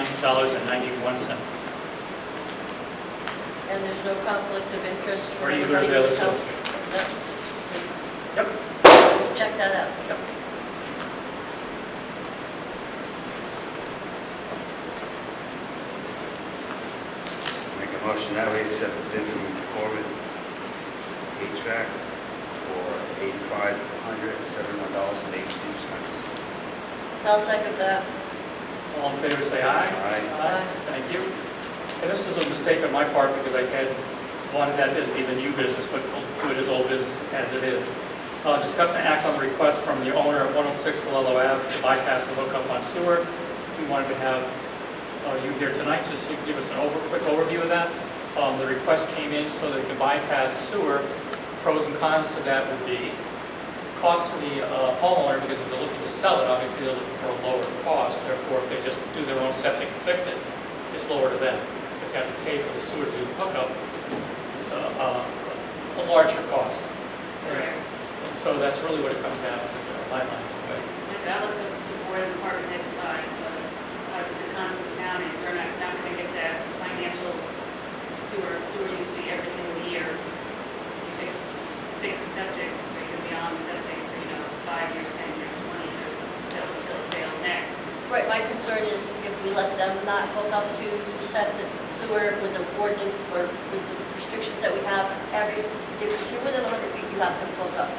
$8,869.91. And there's no conflict of interest for Or you go to anybody the other to tell? two. No. Yep. Check that out. Yep. Make a motion that we accept the bid from Corbin HVAC for eighty-five hundred and seventy-one dollars and eighty-two cents. I'll second that. All in favor, say aye. Aye. Thank you. And this is a mistake on my part because I had wanted that to be the new business, but we'll do it as old business as it is. Uh, Discuss and act on the request from the owner at 106 Palolo Ave to bypass the hookup on sewer. We wanted to have uh, you here tonight just to give us an over, quick overview of that. Um, The request came in so they could bypass sewer. Pros and cons to that would be cost to the uh, homeowner, because if they're looking to sell it, obviously they're looking for a lower cost, therefore if they just do their own septic and fix it, it's lower to them. If they have to pay for the sewer to do the hookup, it's a, a a larger cost. And so that's really what it comes down to, in my mind. but I'll let the the board and department head decide, but obviously the cost of the town, and we're not, not gonna get that financial sewer, sewer used to be every single year. You fix, fix the septic, or you can be on the septic for, you know, five years, ten years, twenty years, until, until it fails next. Right, my concern is if we let them not hook up to the septic sewer with the ordinance or with the restrictions that we have, it's every, if you're within 100 feet, you have to hook up.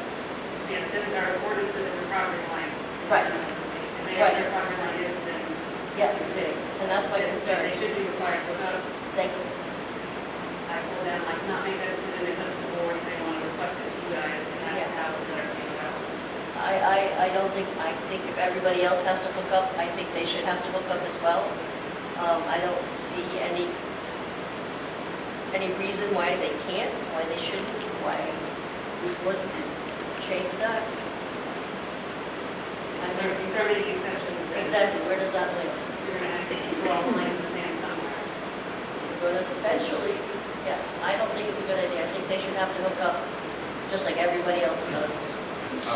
Yeah, this is our ordinance of the property line. Right. If they Right. have their property line, is then. Yes, it is, and that's my concern. They should be required to go. Thank you. I told them, like, not make that decision, it's up to the board, if they want to request it to you guys, and that's Yeah. how the letter came about. I, I, I don't think, I think if everybody else has to hook up, I think they should have to hook up as well. Um, I don't see any, any reason why they can't, why they shouldn't, why we wouldn't change that. I And mean, if you start making exceptions, then exactly, where does that leave? you're gonna have to draw a line in the sand somewhere. Because eventually, yes, I don't think it's a good idea. I think they should have to hook up, just like everybody else does.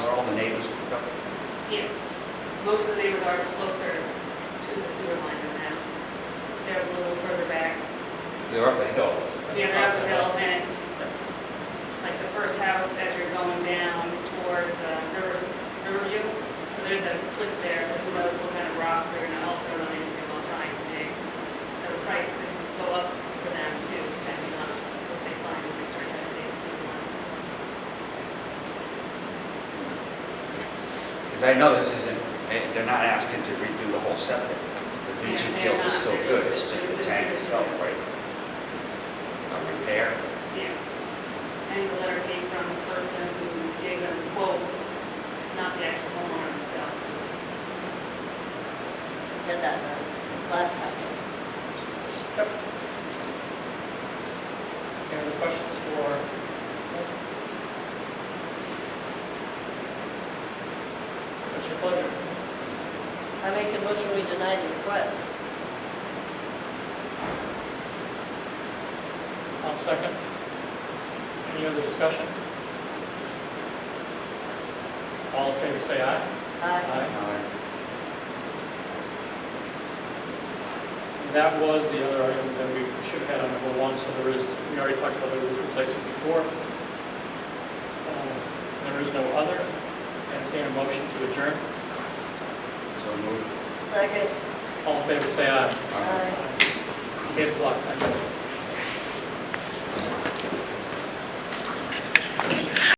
Are all the neighbors hooked up? Yes, most of the neighbors are closer to the sewer line than that. They're a little further back. They're up the hill. Yeah, they're up the hill, and it's like the first house as you're going down towards uh, Rivers, Riverview. So there's a cliff there, so who knows what kind of rock they're gonna also run into while trying to dig. So the price could go up for them too, depending on what they find when they start that dig. so, uh, Because I know this isn't, eh, they're not asking to redo the whole septic. The leaching Yeah, field they're is not. still good, it's just the tank itself, right? A repair. Yeah. And the letter came from the person who gave them the quote, not the actual homeowner themselves. Did that last time. Any other questions for? What's your pleasure? I make a motion we deny the request. I'll second. Any other discussion? All in favor, say aye. Aye. Uh, That was the other item that we should have had on number one, so there is, we already talked about the roof replacement before. Um, There is no other. Entertain a motion to adjourn. So move. Second. All in favor, say aye. uh, Aye. Eight o'clock, thank you.